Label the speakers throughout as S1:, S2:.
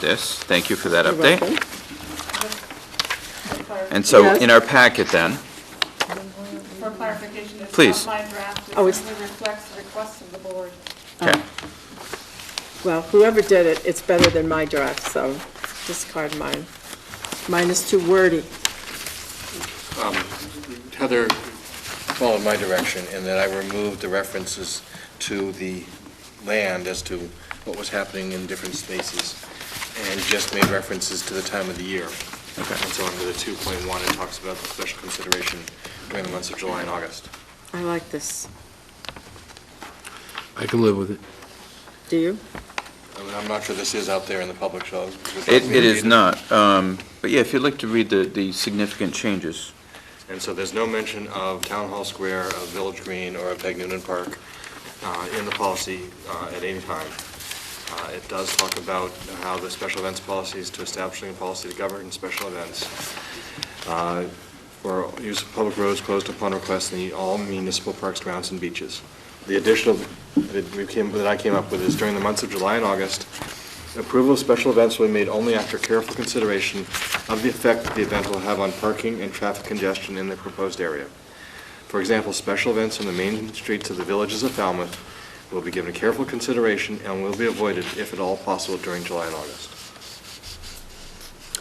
S1: this. Thank you for that
S2: You're
S1: update.
S2: welcome.
S1: And so
S2: Yes.
S1: in our packet then,
S3: For clarification, it's
S1: Please.
S3: not my draft, it
S2: Oh, it's-
S3: simply reflects the request of the board.
S2: Oh.
S1: okay,
S2: Well, whoever did it, it's better than my draft, so discard mine. Mine is too wordy.
S4: Um, Heather followed my direction in that I removed the references to the land as to what was happening in different spaces, and just made references to the time of the year.
S1: Okay.
S4: And so under the 2.1, it talks about the special consideration during the months of July and August.
S2: I like this.
S5: I can live with it.
S2: Do you?
S6: Oh.
S4: I mean, I'm not sure this is out there in the public, so.
S1: it it is not. um, But yeah, if you'd like to read the the significant changes.
S4: And so there's no mention of Town Hall Square, of Village Green, or of Peg Noonan Park uh, in the policy uh, at any time. Uh, It does talk about how the special events policy is to establishing a policy to govern special events. Uh, For use of public roads closed upon request in the all municipal parks, grounds, and beaches. The additional that we came, that I came up with is during the months of July and August, approval of special events will be made only after careful consideration of the effect that the event will have on parking and traffic congestion in the proposed area. For example, special events on the main streets of the villages of Falmouth will be given careful consideration and will be avoided if at all possible during July and August.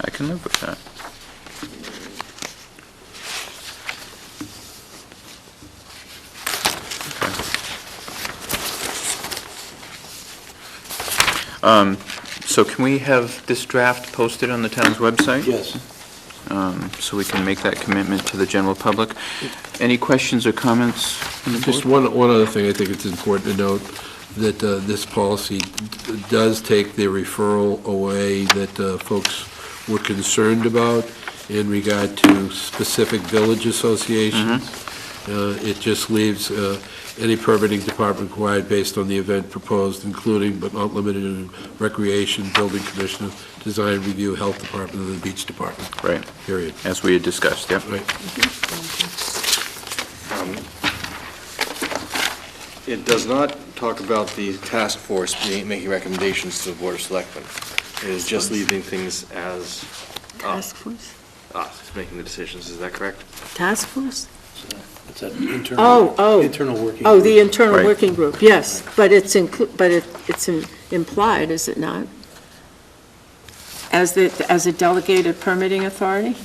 S1: I can live with that. Okay. Um, So can we have this draft posted on the town's website?
S5: Yes.
S1: um, so we can make that commitment to the general public. Any questions or comments? from the
S5: Just
S1: board?
S5: one, one other thing I think it's important to note, that uh, this policy d- does take the referral away that uh, folks were concerned about in regard to specific village associations. Uh, It just leaves uh, any permitting department required based on the event proposed, including but not limited to recreation, building commissioner, design review, health department, and the beach department,
S1: Right,
S5: period.
S1: as we had discussed, yep.
S5: Right.
S4: It does not talk about the task force being- making recommendations to the Board of Selectmen. It is just leaving things as us,
S2: Task force?
S4: us making the decisions, is that correct?
S2: Task force?
S6: It's an internal.
S2: Oh, oh.
S6: Internal working.
S2: Oh, the
S6: group.
S2: internal
S1: Right.
S2: working group, yes, but it's inclu, but it, it's im- implied, is it not? As the, as a delegated permitting authority?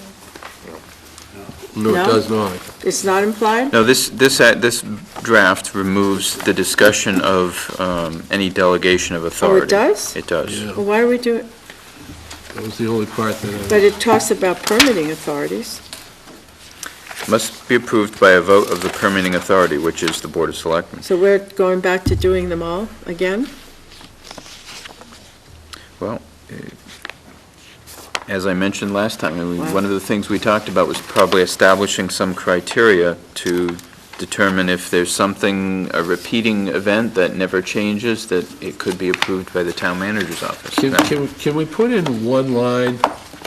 S5: No,
S2: No?
S5: it does not.
S2: It's not implied?
S1: No, this, this, act- this draft removes the discussion of um, any delegation of authority.
S2: Oh, does?
S1: It does.
S5: Yeah.
S2: Well, Why are we doing,
S5: That was the only part that I...
S2: but it talks about permitting authorities.
S1: Must be approved by a vote of the permitting authority, which is the Board of Selectmen.
S2: So we're going back to doing them all again?
S1: As I mentioned last time, I mean,
S2: Wow.
S1: one of the things we talked about was probably establishing some criteria to determine if there's something, a repeating event that never changes, that it could be approved by the town manager's office.
S5: Can,
S1: Now-
S5: can, can we put in one line,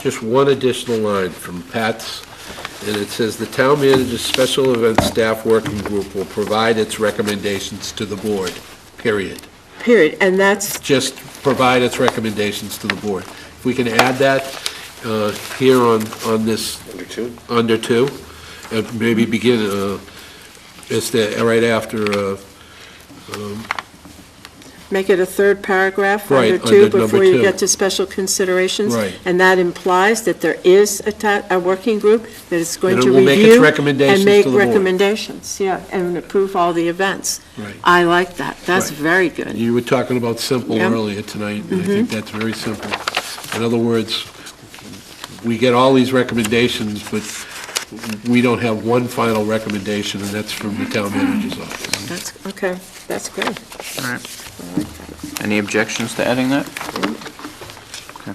S5: just one additional line from Pat's? And it says, "The town manager's special event staff working group will provide its recommendations to the board," period.
S2: Period, and that's,
S5: Just provide its recommendations to the board. If we can add that uh, here on, on this,
S4: Under two?
S5: under two, and maybe begin, uh, it's the, right after, uh,
S2: make it a third paragraph
S5: Right,
S2: under two
S5: under number
S2: before you
S5: two.
S2: get to special considerations.
S5: Right.
S2: And that implies that there is a ta, a working group that is going
S5: And it
S2: to
S5: will make its
S2: review
S5: recommendations
S2: and make
S5: to the board.
S2: recommendations, yeah, and approve all the events.
S5: Right.
S2: I like that, that's
S5: Right.
S2: very good.
S5: You were talking about simple
S2: Yeah.
S5: earlier tonight, and I think that's very simple. In other words, we get all these recommendations, but we don't have one final recommendation, and that's from the town manager's office.
S2: That's, okay, that's great.
S1: All right. Any objections to adding that? Okay.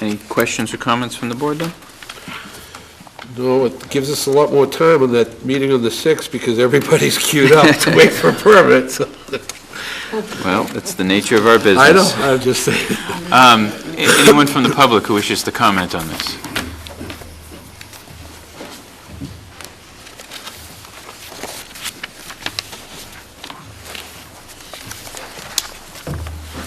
S1: Any questions or comments from the board, then?
S5: No, it gives us a lot more time on that meeting on the 6th, because everybody's queued up to wait for permits.
S1: Well, it's the nature of our business.
S5: I know, I'm just saying.
S1: Um, a- Anyone from the public who wishes to comment on this?